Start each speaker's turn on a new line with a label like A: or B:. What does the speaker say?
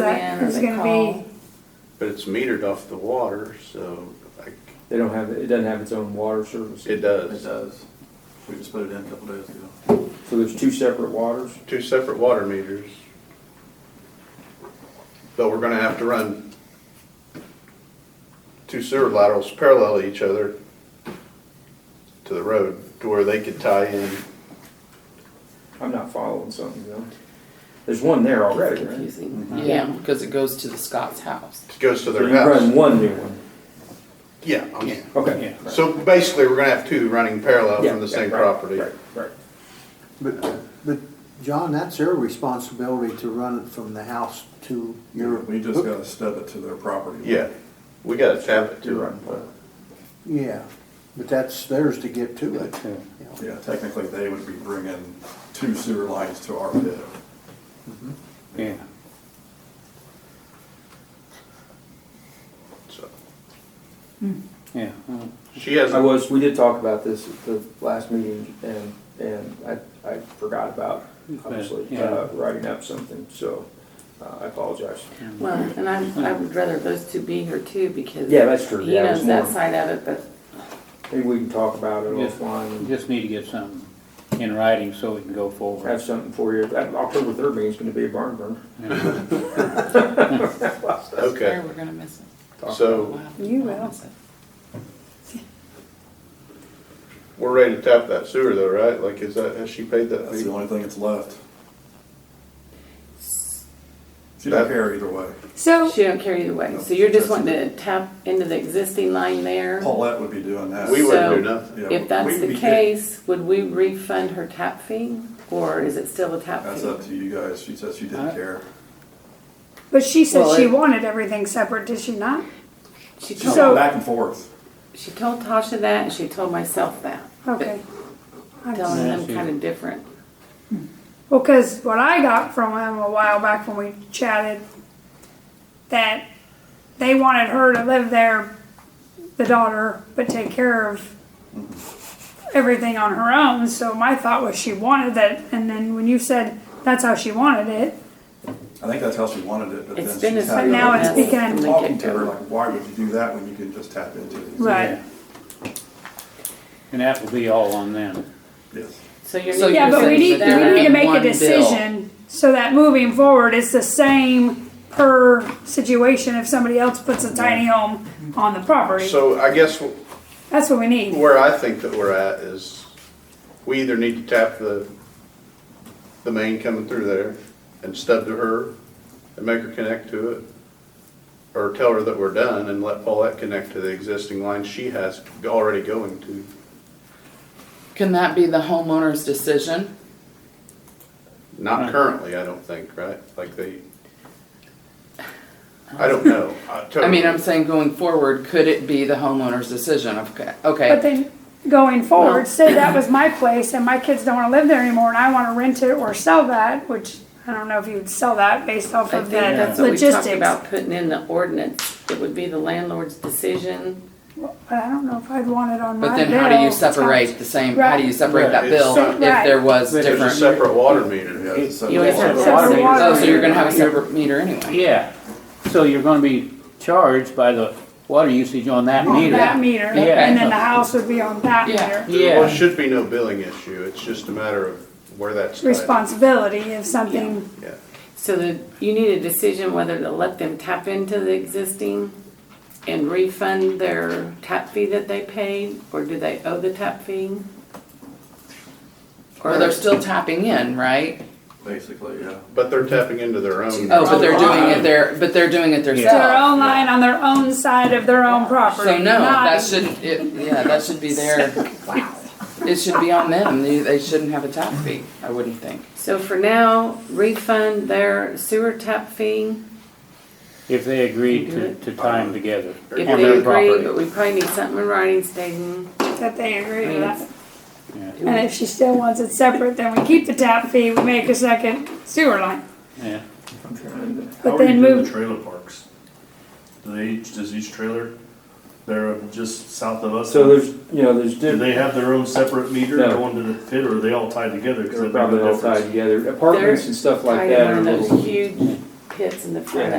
A: that
B: Who's
A: is gonna be,
C: But it's metered off the water, so I,
D: They don't have, it doesn't have its own water service.
C: it
E: It
C: does.
E: does. We just put it in a couple days ago.
D: So there's two separate waters?
C: Two separate water meters. But we're gonna have to run two sewer laterals parallel to each other to the road to where they could tie in.
D: I'm not following something, you know? There's one there already, right?
B: Confusing. Yeah, because it goes to the Scott's house.
C: It goes to
D: So
C: their
D: you run
C: house.
D: one new one.
C: Yeah. I'm-
D: Okay. right.
C: So basically, we're gonna have two running parallel
D: Yeah,
C: from the
D: yeah,
C: same
D: right,
C: property.
D: Right, right.
F: But, but John, that's their responsibility to run it from the house to your.
E: We just gotta stub it to their property.
C: Yeah, we gotta tap it
D: You're
C: to it.
D: right.
F: Yeah, but that's theirs to get to it. Yeah.
E: Yeah, technically, they would be bringing two sewer lines to our pit.
G: Yeah,
C: So,
G: yeah. well,
C: She has,
D: I was, we did talk about this at the last meeting and, and I, I forgot about, obviously,
G: Yeah.
D: uh, writing up something, so uh, I apologize.
B: Well, and I, I would rather those two be here too because
D: Yeah, that's true.
B: he
D: Yeah, there's
B: knows that
D: more.
B: side of it, but
D: Maybe we can talk about it
G: Yeah.
D: offline
G: We
D: and
G: just need to get something in writing so we can go forward.
D: have something for you. That October third meeting's gonna be a barn burner.
G: Yeah.
C: okay,
B: there, we're gonna miss it.
C: so
B: We'll have to
A: You
B: we'll
A: will.
B: miss it.
C: we're ready to tap that sewer though, right? Like, is that, has she paid that
E: That's
C: fee?
E: the only thing that's left. She don't care either way.
A: so,
B: She don't care either way, so you're just wanting to tap into the existing line there?
E: Paulette would be doing that.
C: We wouldn't do
B: So,
C: nothing.
E: Yeah,
B: If that's
E: we'd
B: the
E: be good.
B: case, would we refund her tap fee, or is it still a tap fee?
E: That's up to you guys. She said she
B: Uh,
E: didn't care.
A: but she said
B: Well,
A: she
B: it-
A: wanted everything separate, did she not?
B: She
E: She went
A: So-
B: told,
E: back and forth.
B: she told Tasha that, and she told myself that.
A: Okay. I-
B: Telling
G: Yeah,
B: them
G: she-
B: kind of different.
A: Well, because what I got from him a while back when we chatted, that they wanted her to live there, the daughter, but take care of everything on her own. So my thought was she wanted that, and then when you said that's how she wanted it,
E: I think that's how she wanted it, but
B: It's
E: then
B: been a.
E: she's had.
A: But now
B: mess
A: it's
B: from the
A: become-
E: Talking to her,
B: get-go.
E: like, why would you do that when you can just tap into it?
A: right?
G: And that will be all on them.
E: Yes.
B: So you're.
G: So
A: Yeah,
G: you're
A: but we
G: saying
A: need,
G: that
A: we
G: they're
A: need to
G: in
A: make
G: one
A: a
G: bill.
A: decision so that moving forward, it's the same per situation if somebody else puts a tiny home on the property.
C: So I guess wh-
A: That's what we need.
C: where I think that we're at is, we either need to tap the, the main coming through there and stub to her and make her connect to it. Or tell her that we're done and let Paulette connect to the existing line she has already going to.
B: Can that be the homeowner's decision?
C: Not
G: Right.
C: currently, I don't think, right? Like they, I don't know.
B: I mean, I'm
C: totally-
B: saying going forward, could it be the homeowner's decision? Okay,
A: But
B: okay.
A: then going forward, say that was my place and my kids don't wanna live there anymore and I wanna rent it or sell that, which I don't know if you would sell that based off
B: I
A: of
B: think
A: that
B: that's what we talked
A: logistics.
B: about, putting in the ordinance. It would be the landlord's decision,
A: But I don't know if I'd want it on my
B: but
A: bill.
B: then how do you separate the same, how do you separate that
C: Right.
B: bill if there was
G: Right.
C: There's a
B: different?
C: separate water meter.
E: Yeah, it's a-
B: You always have
A: So
B: a
A: it's the water
B: Oh, so you're
A: meter.
B: gonna have a separate meter anyway.
G: Yeah, so you're gonna be charged by the water usage on that
A: On
G: meter.
A: that meter, and then the house would be on that
B: Yeah.
A: meter.
C: There
G: Yeah.
C: should be no billing issue, it's just a matter of where that's tied.
A: Responsibility if something,
C: Yeah,
B: So that you need a decision whether to let them tap into the existing and refund their tap fee that they paid, or do they owe the tap fee? Or they're still tapping in, right?
E: Basically, yeah.
C: but they're tapping into their own.
B: Oh, but they're doing it their, but they're doing it
A: their
B: themselves.
A: own line on their own side of their own property.
B: So no,
A: not-
B: that shouldn't, it, yeah, that should be their, it should be on them. They, they shouldn't have a tap fee, I wouldn't think. So for now, refund their sewer tap fee.
G: If they agree to, to tie them together on
B: If they
G: their
B: agree, but
G: property.
B: we probably need something in writing stating.
A: That they agree with that.
G: Yeah.
A: And if she still wants it separate, then we keep the tap fee, we make a second sewer line.
G: Yeah,
H: How
A: But
H: are you
A: then
H: doing the
A: move,
H: trailer parks? Do they, each does each trailer, they're just south of us?
D: So there's, you know, there's
H: Do
D: different.
H: they have their own separate meter
D: No.
H: going to the pit, or are they all tied together? 'Cause
D: They're
H: that'd be the
D: probably all tied
H: difference.
D: together. Apartments and stuff like
B: Tied in
D: that are
B: one of
D: little.
B: those huge pits in the front